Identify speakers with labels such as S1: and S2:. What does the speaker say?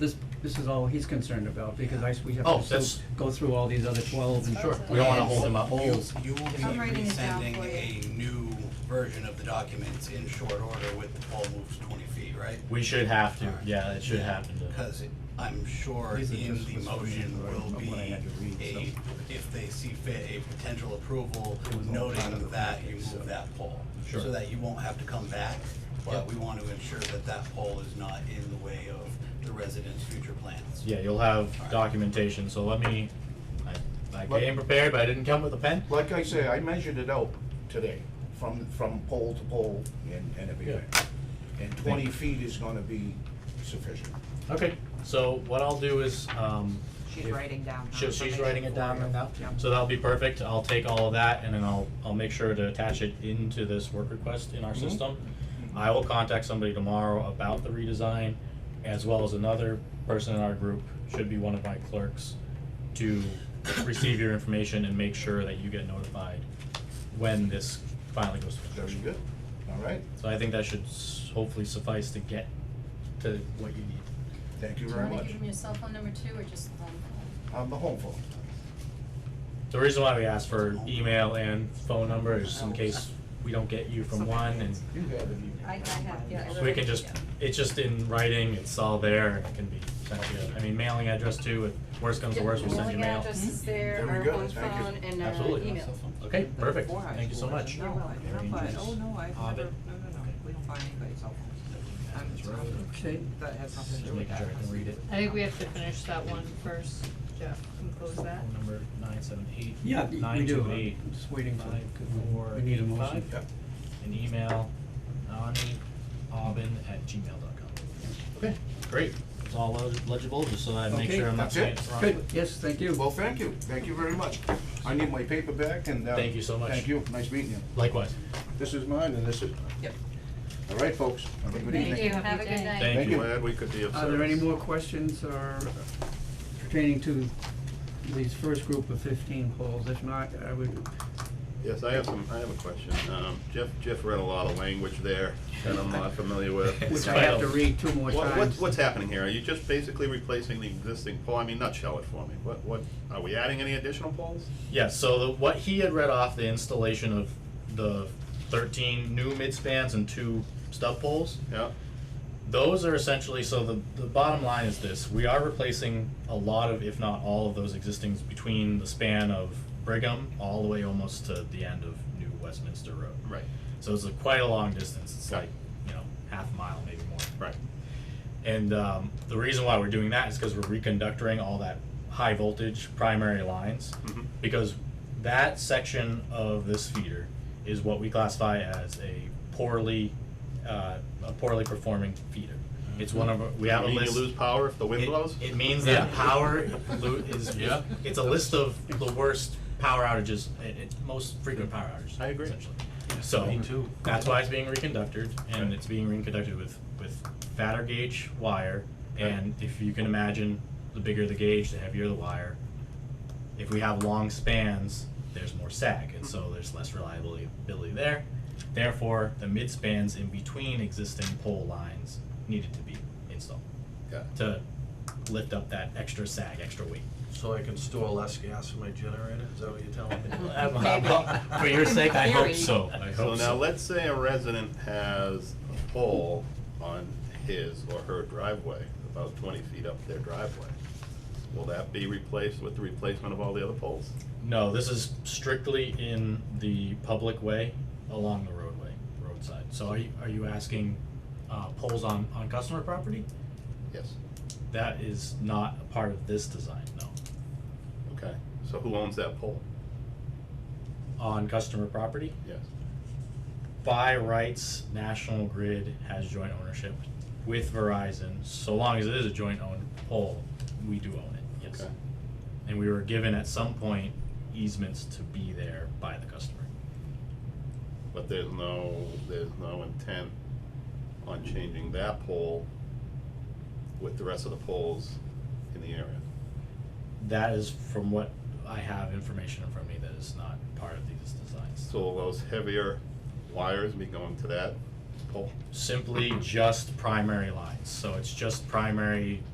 S1: This, this is all he's concerned about, because I, we have
S2: Oh,
S1: to still
S2: that's-
S1: go through all these other twelve and.
S2: Sure, we don't wanna hold them up.
S3: Holes. You will be
S4: I'm writing it down
S3: resending
S4: for
S3: a
S4: you.
S3: new version of the documents in short order with the pole moves twenty feet, right?
S2: We should have to,
S3: Alright.
S2: yeah, it should happen to,
S3: Cause it- I'm sure
S1: These are
S3: in
S1: just
S3: the
S1: what's
S3: motion
S1: written,
S3: will
S1: of
S3: be
S1: what I had to read,
S3: a, if they see fit, a potential approval
S1: It was all part of the
S3: noting that you
S1: package, so-
S3: move that pole.
S2: Sure.
S3: So that you won't have to come back,
S2: Yeah.
S3: but we want to ensure that that pole is not in the way of the residents' future plans.
S2: yeah, you'll have
S3: Alright.
S2: documentation, so let me, I, I
S5: Let-
S2: came prepared, but I didn't come with a pen.
S5: Like I say, I measured it out today, from, from pole to pole and, and everything. And twenty feet is gonna be sufficient.
S2: Okay, so what I'll do is, um.
S4: She's
S2: if-
S4: writing down. her
S2: She- She's
S4: information
S2: writing it
S4: for
S2: down
S4: you.
S2: right now?
S4: Yep.
S2: So that'll be perfect, I'll take all of that and then I'll, I'll make sure to attach it into this work request in our system. I will contact somebody tomorrow about the redesign, as well as another person in our group, should be one of my clerks, to receive your information and make sure that you get notified when this finally goes to
S5: Very
S2: construction.
S5: good, all right?
S2: So I think that should s- hopefully suffice to get to what you need.
S5: Thank you
S6: Do you
S5: very
S6: wanna
S5: much.
S6: give him your cell phone number too, or just um, the phone?
S5: On the home phone.
S2: The reason why we asked for email and phone number is in case we don't get you from one and
S5: You have it.
S6: I, I have, yeah. I
S2: So we
S6: wrote
S2: can
S6: it
S2: just,
S6: down.
S2: it's just in writing, it's all there, and it can be sent to you. I mean, mailing address too, if worse comes to
S6: Yeah,
S2: worse, we'll
S6: the
S2: send you mail.
S6: mailing address
S5: Hmm?
S6: is there,
S5: Very
S6: our
S5: good,
S6: home
S5: thank
S6: phone,
S5: you.
S4: uh,
S6: and our email.
S2: Absolutely. Okay, perfect, thank you so much.
S4: No, I- no, but, oh, no,
S2: Ovid.
S4: I've never, no, no, no, we don't buy anybody's cell phones. I'm-
S1: Okay,
S4: That has nothing to
S2: Just
S4: do with
S2: making
S4: that.
S2: sure I can read it.
S7: I think we have to finish that one first, Jeff, and close that.
S2: Phone number nine seven eight.
S1: yeah, we
S2: Nine
S1: do,
S2: two
S1: I'm
S2: eight.
S1: just waiting for,
S2: Nine, four,
S1: we need a
S2: eight,
S1: motion.
S2: five. An email, nani.aubin@gmail.com. Okay, great. It's all leg- legible, just so I make
S1: Okay,
S2: sure I'm not
S5: that's
S2: saying
S5: it.
S2: it's wrong.
S1: Good, yes, thank you.
S5: Well, thank you, thank you very much. I need my paper back and, uh.
S2: Thank you so much.
S5: Thank you, nice meeting you.
S2: Likewise,
S5: This is mine and this is.
S4: Yep.
S5: All right, folks, have a good evening.
S6: Thank you,
S7: Happy
S6: have a good
S7: day.
S6: night.
S2: thank
S5: Thank
S2: you.
S5: you.
S8: Glad we could be of
S1: Are there any
S8: service.
S1: more questions or pertaining to these first group of fifteen polls? If not, I would,
S8: Yes, I have some, I have a question. Um, Jeff, Jeff read a lot of language there that I'm not familiar with.
S1: which I
S2: fine.
S1: have to read two more
S8: What, what's,
S1: times.
S8: what's happening here? Are you just basically replacing the existing pole? I mean, nutshell it for me. What, what, are we adding any additional poles?
S2: Yeah, so the, what he had read off the installation of the 13 new mid spans and two stub poles,
S8: Yeah,
S2: those are essentially so the, the bottom line is this we are replacing a lot of, if not all of those existings between the span of Brigham all the way almost to the end of New Westminster Road.
S8: right,
S2: So it's a, quite a long distance. It's
S8: Yeah.
S2: like, you know, half a mile, maybe more.
S8: right.
S2: And um, the reason why we're doing that is because we're reconductoring all that high voltage primary lines
S8: Mhm.
S2: because that section of this feeder is what we classify as a poorly uh, a poorly performing feeder. It's one of our, we have a
S8: Mm-hmm. You mean
S2: list.
S8: you lose power if the wind
S2: it,
S8: blows?
S2: it means that
S8: Yeah.
S2: power lo- is
S8: Yeah.
S2: it's a list of the worst power outages, it, it, most frequent power outages.
S8: I agree.
S2: Essentially. So that's why it's being reconducted, and it's being reconducted with with fatter gauge wire. And if you can imagine, the bigger the gauge, the heavier the wire. If we have long spans, there's more sag, and
S8: Mm-hmm.
S2: so there's less reliability ability there. Therefore, the mid spans in between existing pole lines needed to be installed
S8: Yeah.
S2: to lift up that extra sag, extra weight.
S9: So I can store less gas for my generator, is that what you're telling me?
S2: For your sake, I hope
S6: Theory.
S2: so. I
S8: So
S2: hope
S8: now,
S2: so.
S8: let's say a resident has a pole on his or her driveway, about twenty feet up their driveway. Will that be replaced with the replacement of all the other poles?
S2: No, this is strictly in the public way along the roadway, roadside. So are you, are you asking, uh, poles on, on customer property?
S8: Yes.
S2: That is not a part of this design, no.
S8: Okay, so who owns that pole?
S2: On customer property,
S8: Yes.
S2: by rights, National Grid has joint ownership with Verizon. So long as it is a joint owned pole, we do own it, yes.
S8: Okay.
S2: And we were given at some point easements to be there by the customer.
S8: But there's no, there's no intent on changing that pole with the rest of the poles in the area.
S2: That is from what I have information in front of me that is not part of these designs.
S8: So will those heavier wires be going to that pole?
S2: Simply just primary lines, so it's just primary